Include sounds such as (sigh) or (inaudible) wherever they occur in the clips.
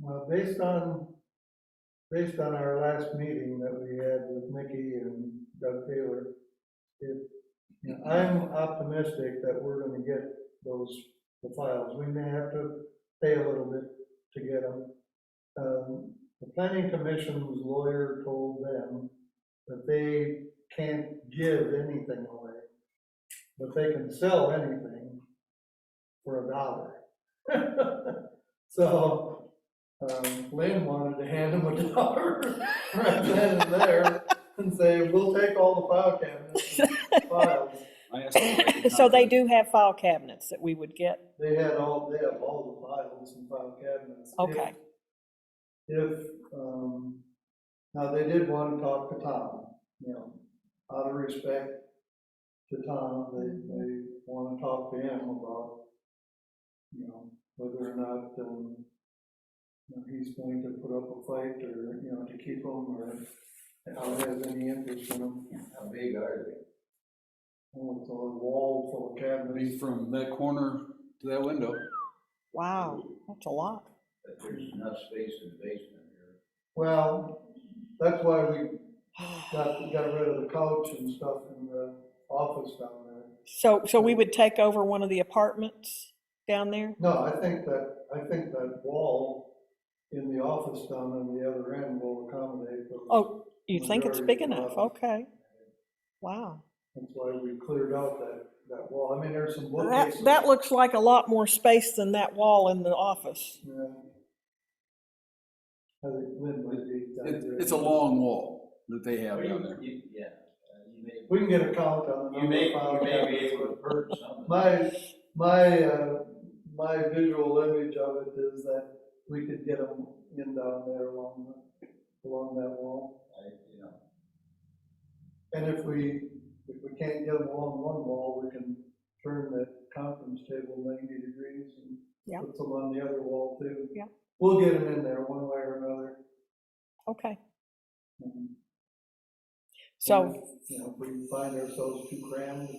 Well, based on, based on our last meeting that we had with Mickey and Doug Taylor, if, you know, I'm optimistic that we're gonna get those, the files. We may have to pay a little bit to get them. Um, The planning commission's lawyer told them that they can't give anything away, but they can sell anything for a dollar. (laughs) So, um, Lynn wanted to hand him a (laughs) dollar right then and there and say, we'll take all the file cabinets and files. I asked them if (laughs) could So they contact- do have file cabinets that we would get. They had all, they have all the files and file cabinets. If- Okay. If, um, now they did want to talk to Tom, you know, out of respect to Tom, they, they want to talk to him about, you know, whether or not, um, you know, he's going to put up a fight or, you know, to keep him or how it has any interest in him. How big are they? Oh, it's a wall full of I cabinets. mean, from that corner to that window. Wow, that's a lot. (sighs) But there's enough space in the basement here. Well, that's why we got, got rid of the couch and stuff in the office down there. So, so we would take over one of the apartments down there? No, I think that, I think that wall in the office down on the other end will accommodate those. Oh, you think it's big Majority of the enough? apartments. Okay. Wow. That's why we cleared out that, that wall. I mean, there's some That, bookcases. that looks like a lot more space than that wall in the office. Yeah. I think Lynn might be. down It, there. it's a long wall that they have Well, you- down there. you- Yeah, uh, you may, We can get a count on. the you may, number you of may be files. able to purge some of it. My, my, uh, my visual image of it is that we could get them in down there along, the- along that wall. I- you know, And if we, if we can't get them along one wall, we can turn that conference table ninety degrees Yeah. and put them on the other wall too. Yeah. We'll get them in there one way or another. Okay. And, So, You know, if we find ourselves too crammed,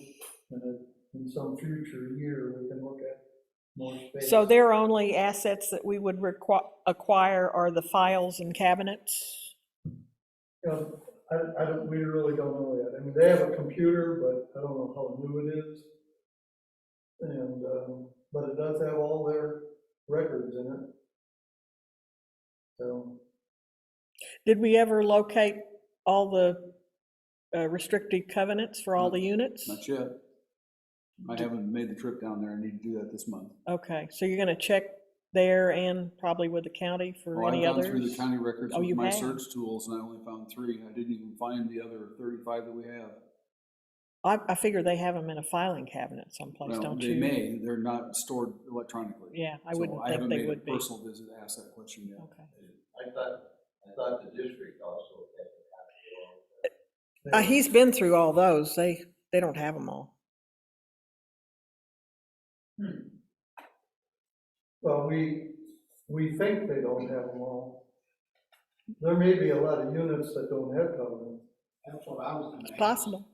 and if in some future year, we can look at more space. so their only assets that we would requi- acquire are the files and cabinets? you know, I, I don't, we really don't know yet. I mean, they have a computer, but I don't know how new it is. And, um, but it does have all their records in it. So, Did we ever locate all the uh, restricted covenants for all the units? Not yet. I haven't made the trip down there. I need to do that this month. Okay, so you're gonna check there and probably with the county for Oh, I've any gone through the others? county records Oh, with you my have? search tools and I only found three. I didn't even find the other thirty-five that we have. I, I figure they have them in a filing cabinet someplace, Well, don't they you? may, they're not stored electronically. Yeah, I So wouldn't think haven't they made a would be. Personal visit to ask that question yet. Okay. I thought, I thought the district also had to have it they- all. Uh, he's been through all those. They, they don't have them all. well, we, we think they don't have them all. There may be a lot of units that don't have covenants. That's what I was It's possible.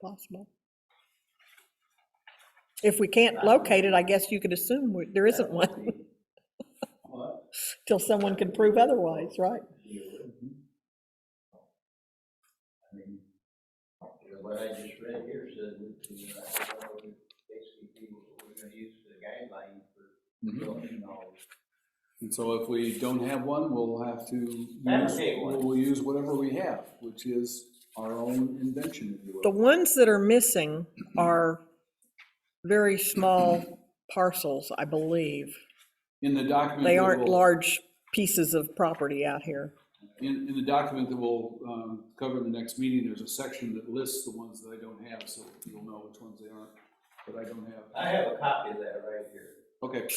Possible. If we can't locate it, I guess you could assume we- there isn't (laughs) one What? till someone can prove otherwise, right? You would. I mean, you know, what I just read here said, we can, you know, basically, we're gonna use the guideline for Mhm. Mm-hmm. building all this. And so if we don't have one, we'll have to, use- Fabricate we'll one. we'll use whatever we have, which is our own invention, if you The will. ones that are missing are very small parcels, I believe. In the document. They that aren't will- large pieces of property out here. In, in the document that we'll um, cover in the next meeting, there's a section that lists the ones that I don't have, so you'll know which ones they aren't, that I don't have. I have a copy of that right here. Okay,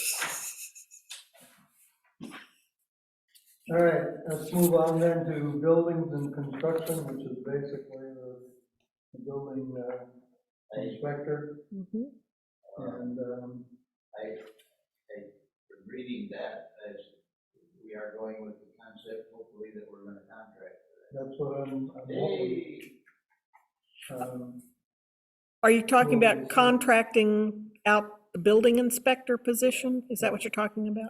All right, let's move on then to buildings and construction, which is basically the, the building uh, I, inspector. Mhm. uh, And, um, I, I, from reading that, as we are going with the concept, hopefully, that we're gonna contract for that. that's what I'm, I'm hoping. Hey, Um, Are you talking Well, we about said- contracting out the building inspector position? Is that what you're talking about?